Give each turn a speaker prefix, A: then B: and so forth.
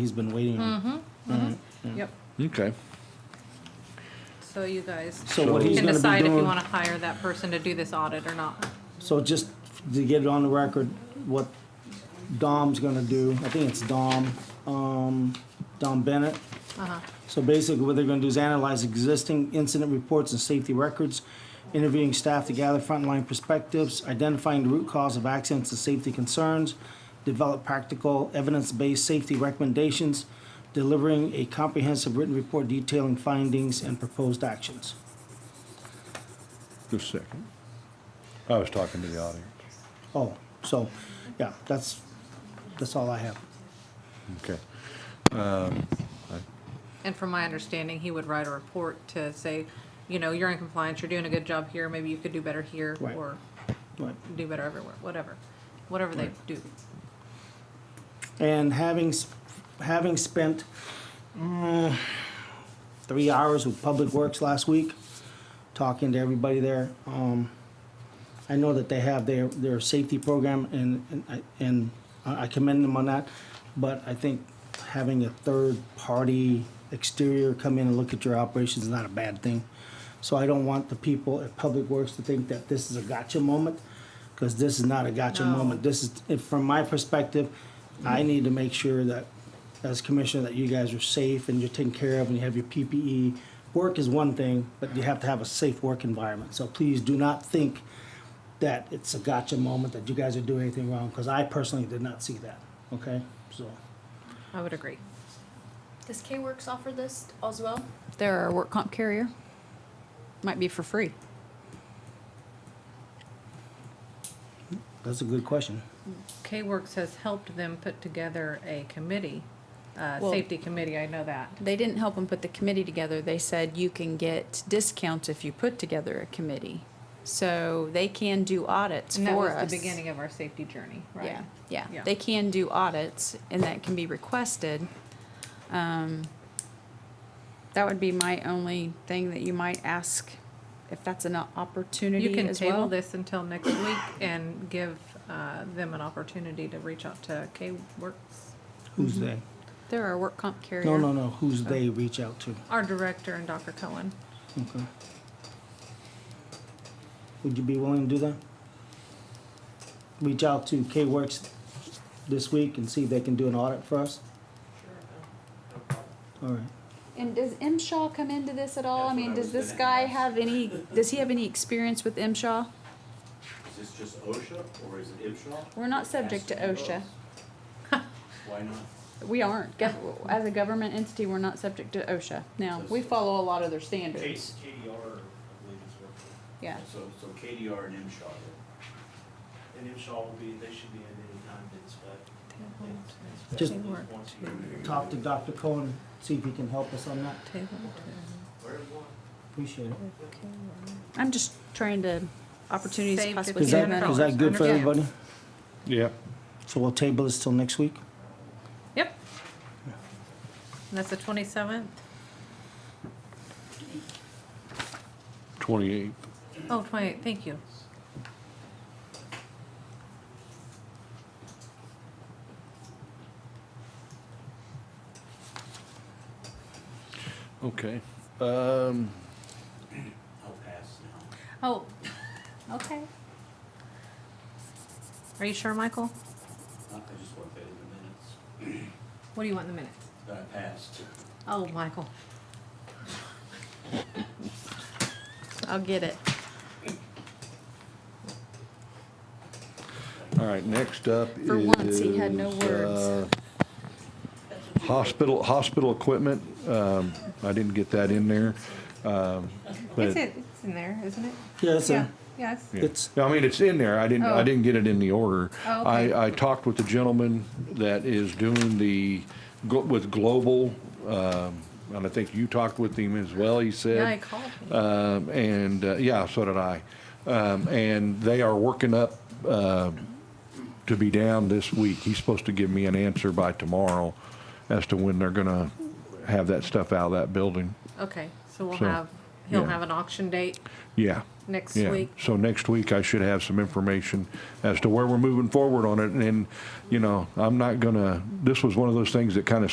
A: he's been waiting.
B: Mm-hmm. Yep,
C: Okay.
B: so you guys
A: So what he's
B: can
A: gonna be
B: decide if you
A: doing-
B: wanna hire that person to do this audit or not.
A: So just to get it on the record, what Dom's gonna do, I think it's Dom, um, Dom Bennett.
B: Uh-huh.
A: So basically, what they're gonna do is analyze existing incident reports and safety records, interviewing staff to gather frontline perspectives, identifying the root cause of accidents and safety concerns, develop practical, evidence-based safety recommendations, delivering a comprehensive written report detailing findings and proposed actions.
C: Just a second. I was talking to the audience.
A: Oh, so, yeah, that's, that's all I have.
C: Okay.
B: And from my understanding, he would write a report to say, you know, you're in compliance, you're doing a good job here, maybe you could do better here,
A: Right.
B: or
A: Right.
B: do better everywhere, whatever, whatever they do.
A: And having, s- having spent mm, three hours with Public Works last week, talking to everybody there, um, I know that they have their, their safety program and, and I- and I I commend them on that. But I think having a third-party exterior come in and look at your operations is not a bad thing. So I don't want the people at Public Works to think that this is a gotcha moment, because this is not a gotcha
B: No.
A: moment. This is, if- from my perspective, I need to make sure that, as commissioner, that you guys are safe and you're taken care of and you have your PPE. Work is one thing, but you have to have a safe work environment. So please do not think that it's a gotcha moment, that you guys are doing anything wrong, because I personally did not see that, okay? So,
B: I would agree.
D: Does K-Works offer this as well? They're our work comp carrier. Might be for free.
A: that's a good question.
B: K-Works has helped them put together a committee, uh,
D: Well-
B: safety committee, I know that.
D: They didn't help them put the committee together. They said you can get discounts if you put together a committee. So they can do audits
B: And that
D: for us.
B: was the beginning of our safety journey, right?
D: Yeah, yeah.
B: Yeah.
D: They can do audits and that can be requested. Um, That would be my only thing that you might ask if that's an opportunity
B: You can
D: as well.
B: table this until next week and give, uh, them an opportunity to reach out to K-Works.
A: Who's they?
D: They're our work comp carrier.
A: No, no, no, who's they reach out to,
B: our director and Dr. Cohen.
A: okay? Would you be willing to do that? Reach out to K-Works this week and see if they can do an audit for us? All right,
D: And does M. Shaw come into this at all? I mean, does this guy have any, does he have any experience with M. Shaw?
E: Is this just OSHA or is it IBSHA?
D: We're not subject to
E: Ask
D: OSHA.
E: those. Why not?
D: We aren't. Gov- As a government entity, we're not subject to OSHA. Now, we follow a lot of their standards.
F: Case KDR, I believe is working,
D: Yeah.
E: So, so KDR and IBSHA.
F: and Shaw will be, they should be in any time to inspect. inspect
A: Just-
F: those once a year.
A: talk to Dr. Cohen, see if he can help us on that,
B: Table
F: Where do you want?
A: appreciate it.
D: I'm just trying to, opportunities
B: Save
D: possibly.
A: Is
B: Yeah,
A: that,
D: given.
B: no,
A: is that good for
B: understand.
A: everybody?
C: Yep.
A: So we'll table this till next week?
B: Yep. And that's the twenty-seventh?
C: Twenty-eight.
B: Oh, twenty, thank you.
C: Okay. Um,
E: I'll pass now.
B: Oh, okay. Are you sure, Michael?
E: I I just want that in the minutes
B: What do you want in the minutes?
E: that I passed.
B: Oh, Michael.
D: I'll get it.
C: all right, next up is.
D: For once, he had no words.
C: uh, Hospital, hospital equipment. Um, I didn't get that in there. Um, but, yeah,
B: it's in there, isn't it?
A: Yeah, that's it.
B: yes.
A: It's-
C: I mean, it's in there. I didn't, I
B: Oh.
C: didn't get it in the order.
B: Oh, okay.
C: I, I talked with the gentleman that is doing the, glo- with Global, um, and I think you talked with him as well, he said.
B: Yeah, I called him.
C: Um, and, uh, yeah, so did I. Um, and they are working up, uh, to be down this week. He's supposed to give me an answer by tomorrow as to when they're gonna have that stuff out of that building.
B: Okay, so we'll
C: so,
B: have, he'll
C: yeah.
B: have an auction date
C: Yeah.
B: next
C: Yeah.
B: week.
C: So next week I should have some information as to where we're moving forward on it. And, you know, I'm not gonna, this was one of those things that kind of